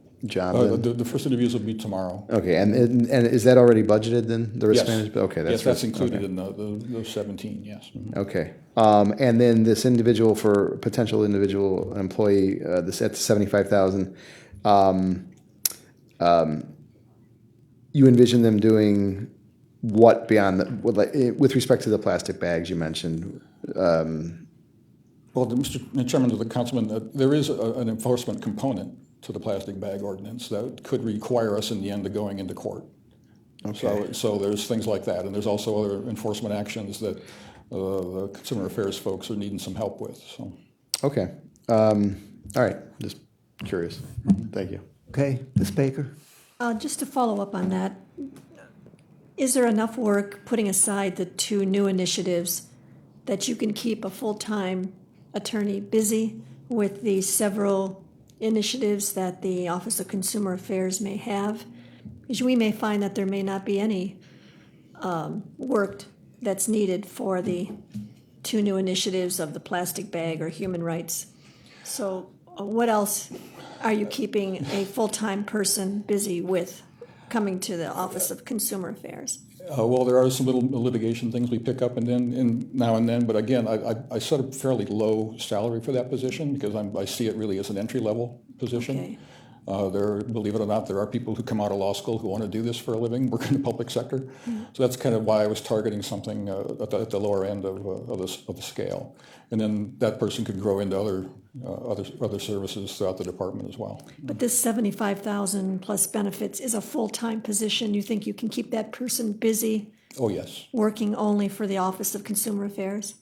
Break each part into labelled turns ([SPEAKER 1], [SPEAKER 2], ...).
[SPEAKER 1] Uh,
[SPEAKER 2] Jonathan?
[SPEAKER 1] The, the first interviews will be tomorrow.
[SPEAKER 2] Okay, and, and and is that already budgeted then, the risk
[SPEAKER 1] Yes.
[SPEAKER 2] management? Okay, Mm-hmm. that's.
[SPEAKER 1] Yes,
[SPEAKER 2] risk-
[SPEAKER 1] that's included in the, the the 17, yes.
[SPEAKER 2] Okay, um, and then this individual for, potential individual employee, uh, this at seventy-five thousand, um, um, you envision them doing what beyond, the what, like, eh, with respect to the plastic bags you mentioned?
[SPEAKER 1] Well, the- Mr. Chairman, to the councilman, uh, there is a- an enforcement component to the plastic bag ordinance that could require us in the end of going into court. So, so there's things like that, and there's also other enforcement actions that uh, the consumer affairs folks are needing some help with, so.
[SPEAKER 2] Okay, um, all right, just curious, thank you.
[SPEAKER 3] Okay, Ms. Baker?
[SPEAKER 4] Uh, Just to follow up on that, is there enough work, putting aside the two new initiatives, that you can keep a full-time attorney busy with the several initiatives that the Office of Consumer Affairs may have? Because we may find that there may not be any um, work that's needed for the two new initiatives of the plastic bag or human rights. So uh, what else are you keeping a full-time person busy with coming to the Office of Consumer Affairs?
[SPEAKER 1] Uh, Well, there are some little litigation things we pick up and then, and now and then, but again, I, I- I set a fairly low salary for that position because I'm, I see it really as an entry-level position.
[SPEAKER 4] Okay.
[SPEAKER 1] Uh, There, believe it or not, there are people who come out of law school who want to do this for a living, work in the public sector. So that's kind of why I was targeting something uh, at the, at the lower end of, uh, of the, s- of the scale. And then that person could grow into other, uh, other, other services throughout the department as well.
[SPEAKER 4] But this seventy-five thousand plus benefits is a full-time position. You think you can keep that person busy
[SPEAKER 1] Oh, yes.
[SPEAKER 4] working only for the Office of Consumer Affairs?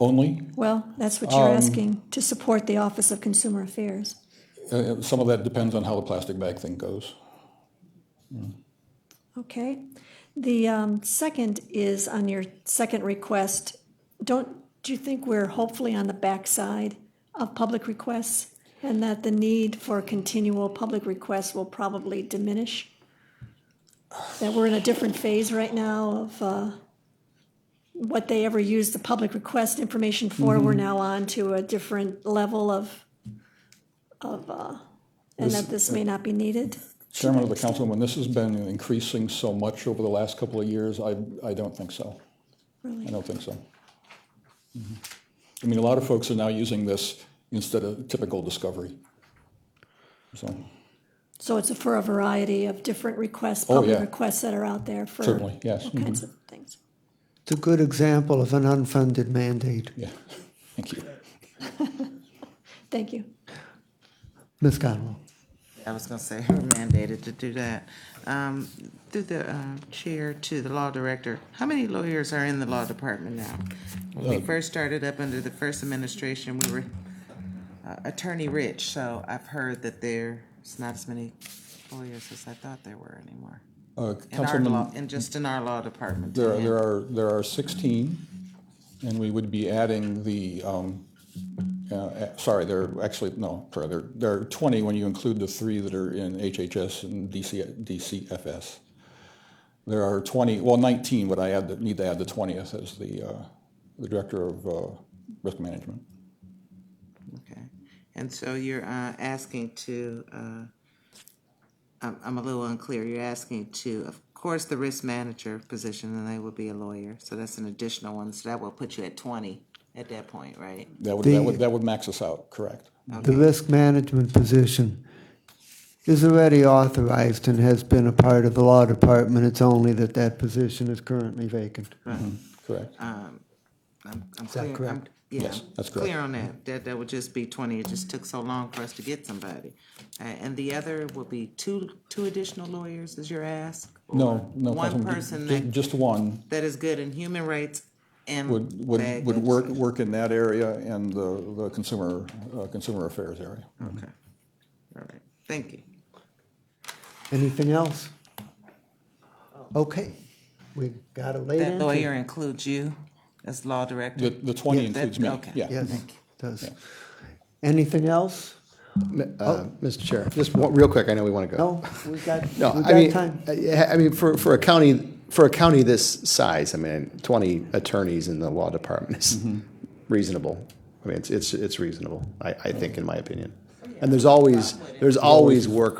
[SPEAKER 1] Only,
[SPEAKER 4] Well, that's what you're asking, to support the Office of Consumer Affairs.
[SPEAKER 1] uh, some of that depends on how the plastic bag thing goes.
[SPEAKER 4] Okay. The um, second is on your second request. Don't, do you think we're hopefully on the backside of public requests? And that the need for continual public requests will probably diminish? That we're in a different phase right now of uh, what they ever used the public request information for. We're now on to a different level of, of, uh, and that this may not be needed?
[SPEAKER 1] Chairman of the council, when this has been increasing so much over the last couple of years, I, I don't think so. I don't think so. Mhm. I mean, a lot of folks are now using this instead of typical discovery. So,
[SPEAKER 4] So it's for a variety of different requests,
[SPEAKER 1] Oh,
[SPEAKER 4] public
[SPEAKER 1] yeah.
[SPEAKER 4] requests that are out there for
[SPEAKER 1] Certainly, yes. Mm-hmm.
[SPEAKER 4] all kinds of things.
[SPEAKER 3] It's a good example of an unfunded mandate.
[SPEAKER 1] yeah, thank you.
[SPEAKER 4] Thank you.
[SPEAKER 3] Ms. Conwell?
[SPEAKER 5] I was gonna say, we're mandated to do that. Um, through the, uh, chair to the law director, how many lawyers are in the law department now? When we first started up under the first administration, we were uh, attorney rich, so I've heard that there's not as many lawyers as I thought there were anymore.
[SPEAKER 1] Uh,
[SPEAKER 5] In our law,
[SPEAKER 1] Councilman,
[SPEAKER 5] and just in our law department.
[SPEAKER 1] there, are-
[SPEAKER 5] yeah.
[SPEAKER 1] there are, there are 16, and we would be adding the, um, uh, uh, sorry, there are actually, no, sorry, there, there are 20 when you include the three that are in HHS and DC, DCFS. There are 20, well, 19, but I add, the- need to add the 20th as the, uh, the Director of uh, Risk Management.
[SPEAKER 5] Okay, and so you're uh, asking to, uh, I'm, I'm a little unclear, you're asking to, of course, the risk manager position, and they would be a lawyer, so that's an additional one, so that will put you at twenty at that point, right?
[SPEAKER 1] That would, that
[SPEAKER 3] The-
[SPEAKER 1] would, that would max us out, correct?
[SPEAKER 3] The risk management position is already authorized and has been a part of the law department. It's only that that position is currently vacant.
[SPEAKER 1] Correct?
[SPEAKER 5] Uh, I'm- I'm
[SPEAKER 3] Is that
[SPEAKER 5] clear- I'm-
[SPEAKER 3] correct?
[SPEAKER 5] yeah,
[SPEAKER 1] Yes,
[SPEAKER 5] I'm
[SPEAKER 1] that's correct.
[SPEAKER 5] Clear on that, that, that would just be twenty, it just took so long for us to get somebody. Uh, And the other will be two, two additional lawyers is your ask?
[SPEAKER 1] No, no.
[SPEAKER 5] Or One
[SPEAKER 1] Councilman, ju-
[SPEAKER 5] person
[SPEAKER 1] ju-
[SPEAKER 5] that,
[SPEAKER 1] Just one.
[SPEAKER 5] that is good in human rights and.
[SPEAKER 1] would, would,
[SPEAKER 5] bag
[SPEAKER 1] would work,
[SPEAKER 5] legislation.
[SPEAKER 1] work in that area and the, the consumer, uh, consumer affairs area.
[SPEAKER 5] Okay, all right, thank you.
[SPEAKER 3] Anything else? Okay, we got a late
[SPEAKER 5] That
[SPEAKER 3] entry.
[SPEAKER 5] lawyer includes you as law director?
[SPEAKER 1] The, the twenty
[SPEAKER 5] that-
[SPEAKER 1] includes me,
[SPEAKER 5] okay.
[SPEAKER 1] yeah.
[SPEAKER 3] Yes, does. Anything else?
[SPEAKER 2] Uh, Mr. Chair, just one, real quick, I know we want to go.
[SPEAKER 3] Oh. No, we got, we
[SPEAKER 2] No, I mean, uh,
[SPEAKER 3] got time.
[SPEAKER 2] I I mean, for, for a county, for a county this size, I mean, twenty attorneys in the law
[SPEAKER 3] Mm-hmm.
[SPEAKER 2] department is reasonable. I mean, it's, it's, it's reasonable, I, I think, in my opinion. And there's always, there's always work